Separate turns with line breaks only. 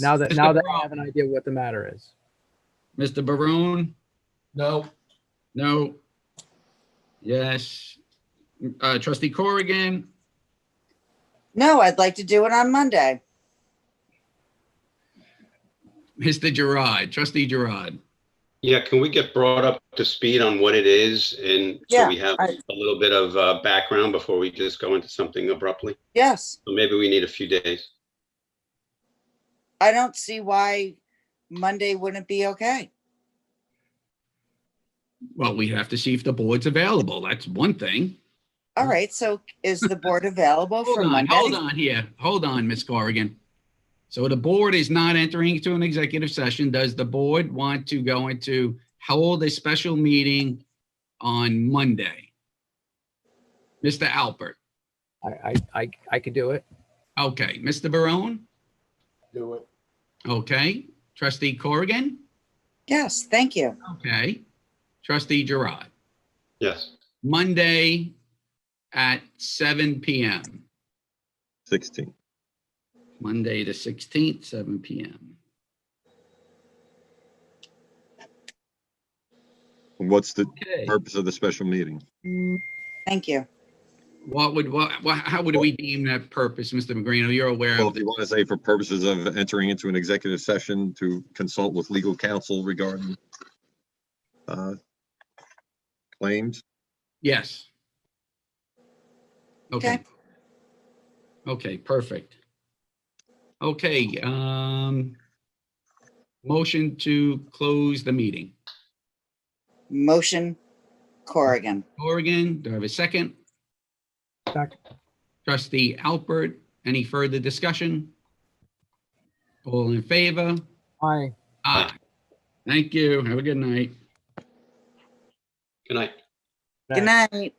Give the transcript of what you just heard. Now that
Mr.
now that I
Brown.
have an idea what the matter is.
Mr. Barone?
No,
No. Yes. Uh, trustee Corrigan,
No, I'd like to do it on Monday.
Mr. Gerard, trustee Gerard.
Yeah, can we get brought up to speed on what it is and so
Yeah,
we have
I-
a little bit of uh, background before we just go into something abruptly?
Yes,
So Maybe we need a few days.
I don't see why Monday wouldn't be okay.
Well, we have to see if the board's available. That's one thing.
All right, so is the board available
Mm. Hold
for
on, hold
Monday?
on here. Hold on, Ms. Corrigan. So the board is not entering into an executive session. Does the board want to go into, hold a special meeting on Monday? Mr. Alpert,
I I I, I could do it.
okay. Mr. Barone,
do it.
okay. Trustee Corrigan,
Yes, thank you.
okay. Trustee Gerard,
Yes.
Monday at seven PM.
16.
Monday, the sixteenth, seven PM.
What's the
Okay.
purpose of the special meeting?
Thank you.
What would, what, wha- how would we deem that purpose, Mr. Magrino? You're aware of
Well, if
the
you want to say for purposes of entering into an executive session to consult with legal counsel regarding uh, claims,
Yes. Okay.
Okay.
Okay, perfect. Okay, um, motion to close the meeting.
Motion Corrigan.
Corrigan, do I have a second?
Second.
Trustee Alpert, any further discussion? All in favor?
Aye.
Aye. Thank you. Have a good night.
Good night.
Good night.